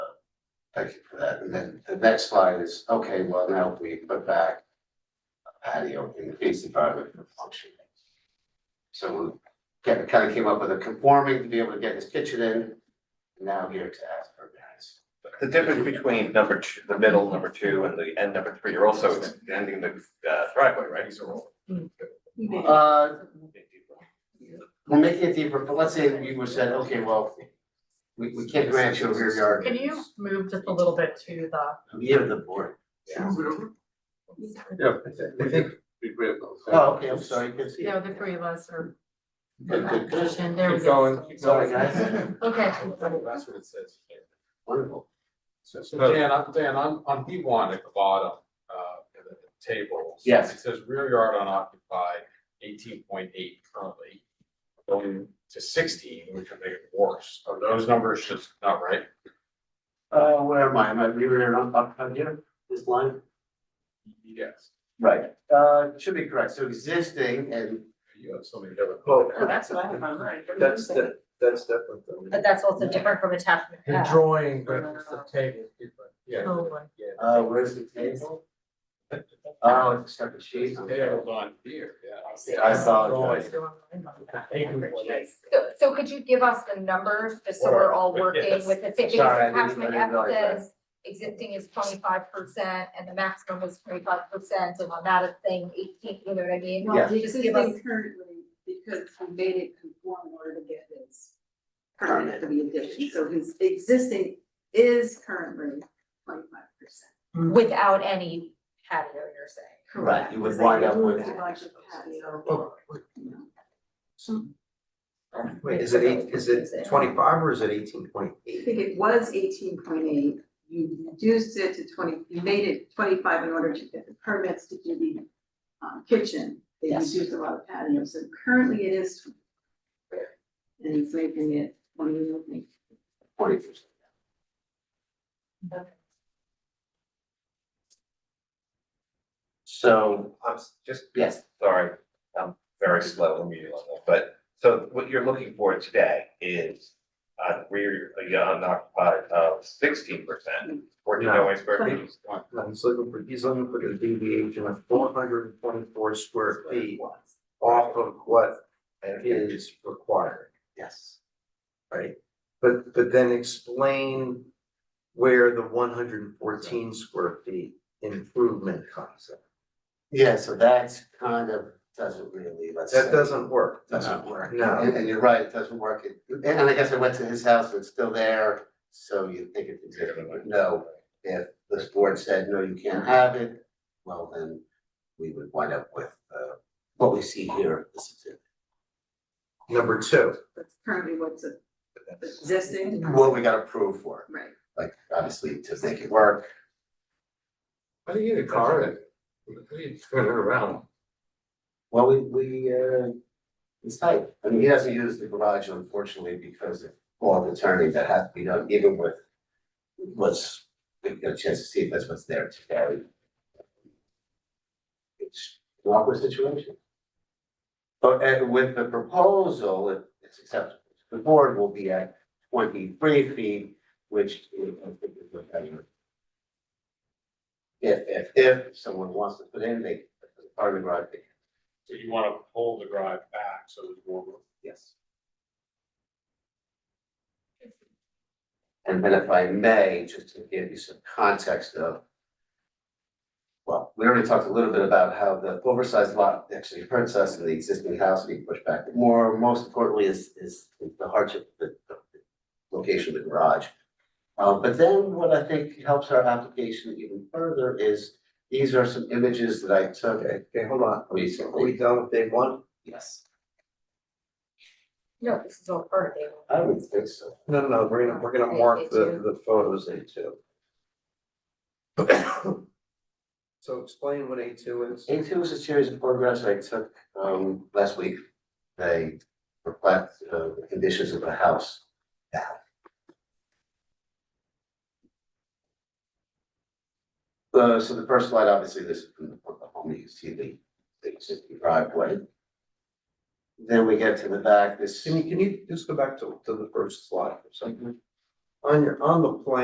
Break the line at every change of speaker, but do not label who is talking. Thank you for that. And then the next slide is, okay, well, now we put back a patio in the fenced environment for functioning. So we kind of came up with a conforming to be able to get his kitchen in, now here to ask for variance.
The difference between number two, the middle, number two, and the end number three, you're also extending the uh, driveway, right? These are all.
Uh, we're making it deeper, but let's say that we were said, okay, well, we, we can't grant you a rear yard.
Can you move just a little bit to the,
We have the board.
Yeah, I think we grab those.
Oh, okay, I'm sorry, you can see.
you know, the three of us are
Good, good, good.
positioned, there we
Keep
go.
going, keep
Sorry,
going.
guys.
Okay,
That's what it says.
Wonderful.
So, so Dan, I'm, Dan, I'm, on B one at the bottom, uh, of the table.
Yes.
It says rear yard unoccupied, eighteen point eight currently, going to sixteen, which would make it worse. Are those numbers just not right?
Uh, where am I? Am I rear and up, up here, this line?
Yes.
Right, uh, should be correct, so existing and,
You have so many different.
Oh,
Well,
Oh, that's what I have in my mind.
that's, that, that's definitely.
but that's also different from attachment
The
F.
drawing, but it's the table, different.
Yeah.
Oh, boy.
uh, where's the table? Oh, it's stuck in sheets.
Tables on here, yeah.
I saw
Drawing.
it.
So, so could you give us the numbers, just so we're all working
Yes.
with the same, because
Sorry, I
the
didn't- I
attachment
didn't
F
realize that.
says existing is twenty-five percent and the maximum was twenty-five percent, and on that it's saying eighteen, you know what I mean?
Yeah.
Well, this
Just
is
give us-
currently, because we made it conform in order to get his permit to be addition, so his existing is currently twenty-five percent.
Mm-hmm.
Without any patio, you're saying.
Right, you would wind up with.
Wait, is it eight, is it twenty-five or is it eighteen point
I
eight?
think it was eighteen point eight, you reduced it to twenty, you made it twenty-five in order to get the permits to do the um, kitchen. They
Yes.
reduced a lot of patio, so currently it is. 25. And he's making it twenty,
Forty percent. So,
I'm s- just,
yes,
sorry, I'm very slow in meeting on that, but, so what you're looking for today is uh, rear, uh, yeah, unoccupied of sixteen percent, fourteen million square feet.
No, he's looking for, he's looking for the deviation of four hundred and twenty-four square feet off of what is required,
yes.
right? But, but then explain where the one hundred and fourteen square feet improvement comes in.
Yeah, so that's kind of, doesn't really, let's
That
say-
doesn't work.
Doesn't work.
No.
And, and you're right, it doesn't work. It- And, and I guess I went to his house, it's still there, so you think it's existing, but no. If this board said, no, you can't have it, well, then we would wind up with, uh, what we see here. This is it.
Number two,
that's currently what's existing,
What we got approved for,
right?
like, obviously, to make it work.
How do you get a car in? How do you turn it around?
Well, we, we, uh, it's tight. I mean, he doesn't use the garage unfortunately because of all the turning that has to be done, even with what's, we get a chance to see if that's what's there today. It's an awkward situation. But uh, with the proposal, it- it's acceptable. The board will be at twenty-three feet, which uh, I think is what I heard. If, if, if someone wants to put in, they, part of the garage, they
So you wanna pull the garage back, so there's more room.
Yes. And then if I may, just to give you some context of. Well, we already talked a little bit about how the oversized lot actually hurts us and the existing house being pushed back. But More, most importantly is, is the hardship, of the, the the location of the garage. Uh, but then what I think helps our application even further is, these are some images that I took
okay, okay, hold on, are
recently.
we done with day one?
Yes.
No, this is all part of it.
I would think so.
No, no, no, we're gonna, we're gonna mark the, the photos A two. So explain what A two is.
A two is a series of photographs I took um last week. They reflect uh the conditions of the house. now. Uh, so the first slide, obviously, this is from the from the home, you see the the existing driveway. Then we get to the back, this.
Mm-hmm. Can you, can you just go back to, to the first slide or something? On your, on the plan,